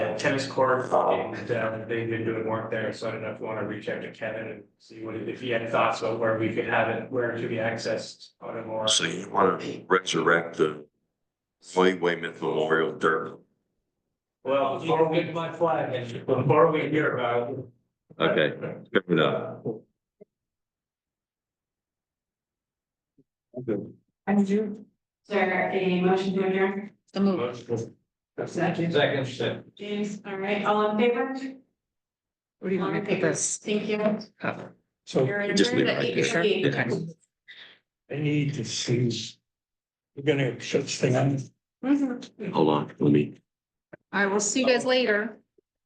tennis court, and uh, they've been doing work there, so I don't know if you wanna reach out to Kevin and see what, if he had thoughts about where we could have it, where it should be accessed on a more. So you want to resurrect the Floyd Wayman Memorial Derby. Well, before we, my flag, and before we hear about. it. Okay, good enough. I do. Is there a motion to adjourn? The move. Second. Second. James, all right, all in favor? Where do you want me to put this? Thank you. up? So You're Just leave adjourned it at right eight there. fifty-eight. Okay. I need to see. We're gonna shut this thing on. Mhm. Hold on, let me. All right, we'll see you guys later.